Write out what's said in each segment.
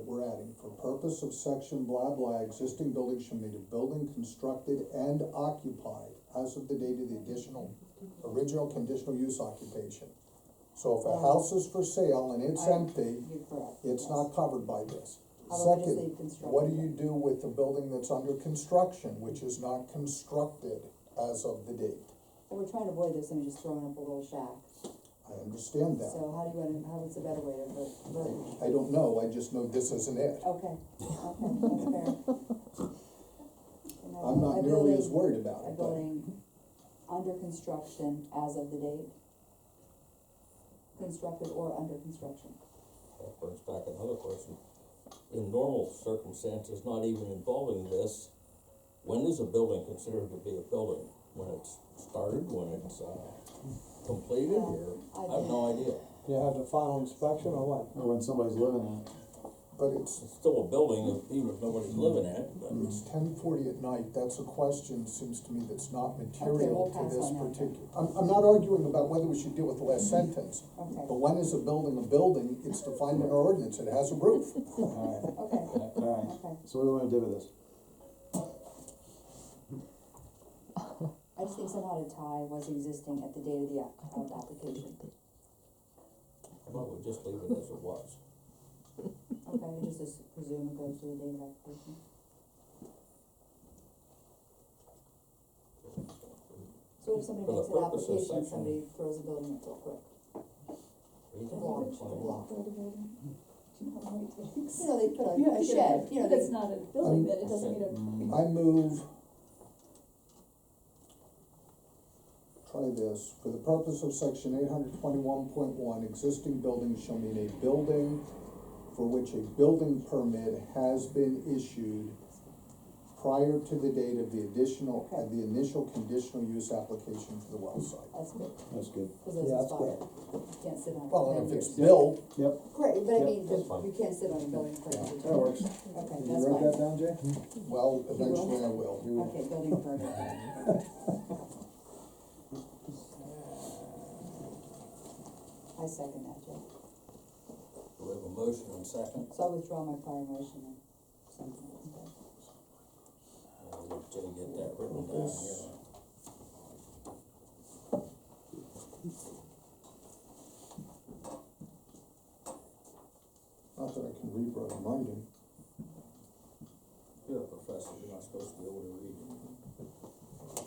we're adding, for purpose of section blah blah, existing buildings shall mean a building constructed and occupied as of the date of the additional, original conditional use occupation. So if a house is for sale and it's I- empty, You're correct. it's yes. not covered by this. How about we just Second, leave construction? what do you do with the building that's under construction, which is not constructed as of the date? Well, we're trying to avoid this, and just throwing up a little shack, I understand so that. how do you, wanna- how is a better way to ver- verbiage? I don't know, I just know this isn't it. Okay, okay, that's fair. And a- I'm a not nearly as building- worried about A it, but building under construction as of the date? Constructed or under construction? That brings back another question. In normal circumstances, not even involving this, when is a building considered to be a building? When it's started, when it's, uh, completed, or, I I have think, no idea. Do you have the final inspection or what? Or when somebody's living in it. but it's It's still a building, if- even if nobody's living in it, but It's ten forty at night, that's a question, seems to me, that's not we'll material to pass this on that then. particular. I'm, I'm not arguing about whether we should deal with the last sentence, okay, but when is a building a building? It's defined in our ordinance, it has a roof. Alright, okay, alright. okay. So what do we wanna do with this? I just think somehow to tie was existing at the date of the app, of the application. why don't we just leave it as it was? Okay, we just as- presume it goes to the date of application. So if somebody For the makes an purpose of application, section- somebody throws a building up real quick. Read the law, Block, it's like- block. Do you know how long it takes? You know, they put You have a, to a get shed, you know, they, That's not a building, that it doesn't need Mm, a. I move. Try this, for the purpose of section eight hundred twenty-one point one, existing buildings shall mean a building for which a building permit has been issued prior to the date of the additional, of the initial conditional use application for the well site. that's good, That's good. cause Yeah, those that's expire, you can't sit on it. Well, for and if ten it's years. built, Great, but I Yep, mean, that's you- fine. you can't sit on a building for ten years. That works. Did Okay, that's you write that fine, down, Jay? well, eventually I will. You- okay, building permit, I second that, Jeff, We have a motion and second, so I withdraw my prior motion and something like that. I'll let Jay Uh, get that written down here. Not that I can read what I'm writing. You're a professor, you're not supposed to be able to read it.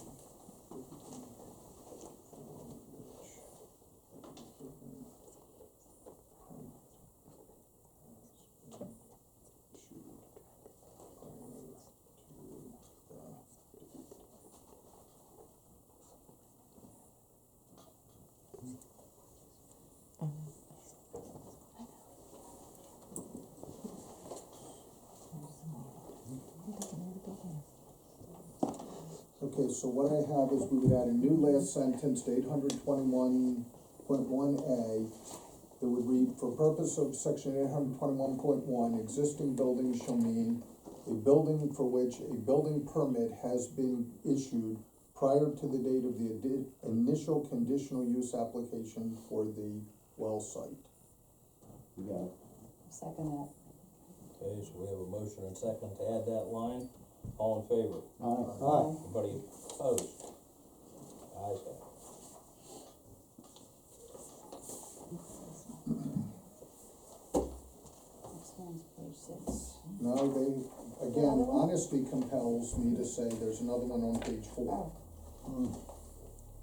Okay, so what I have is we would add a new last sentence to eight hundred twenty-one point one A that would read, for purpose of section eight hundred twenty-one point one, existing buildings shall mean a building for which a building permit has been issued prior to the date of the adi- initial conditional use application for the well site. You got it. Second that, Okay, so we have a motion and second to add that line, all in favor? Alright, Alright, Anybody opposed? Ayes have it. next one's page six. Now, they, again, honesty compels me to say there's another one on page four, Oh, Mm,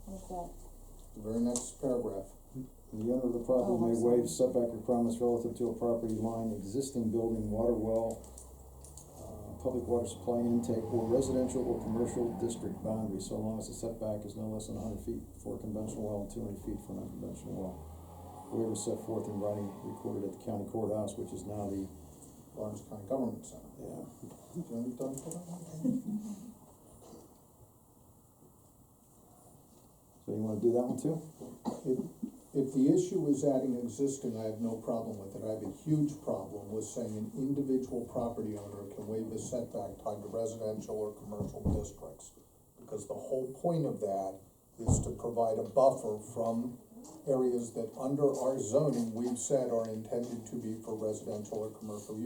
what's that? the very next paragraph. the owner of the property Oh, I'm may waive sorry. setback requirements relative to a property line, existing building, water well, uh, public water supply intake, or residential or commercial district boundary, so long as the setback is no less than hundred feet for a conventional well and two hundred feet for an unconventional well. Waiver set forth in writing recorded at the county courthouse, which is now the, Lawrence County Government Center. yeah, Do you want it done for that? so you wanna do that one too? If, if the issue is adding existing, I have no problem with it. I have a huge problem with saying an individual property owner can waive a setback tied to residential or commercial districts. Because the whole point of that is to provide a buffer from areas that under our zoning, we've said are intended to be for residential or commercial use.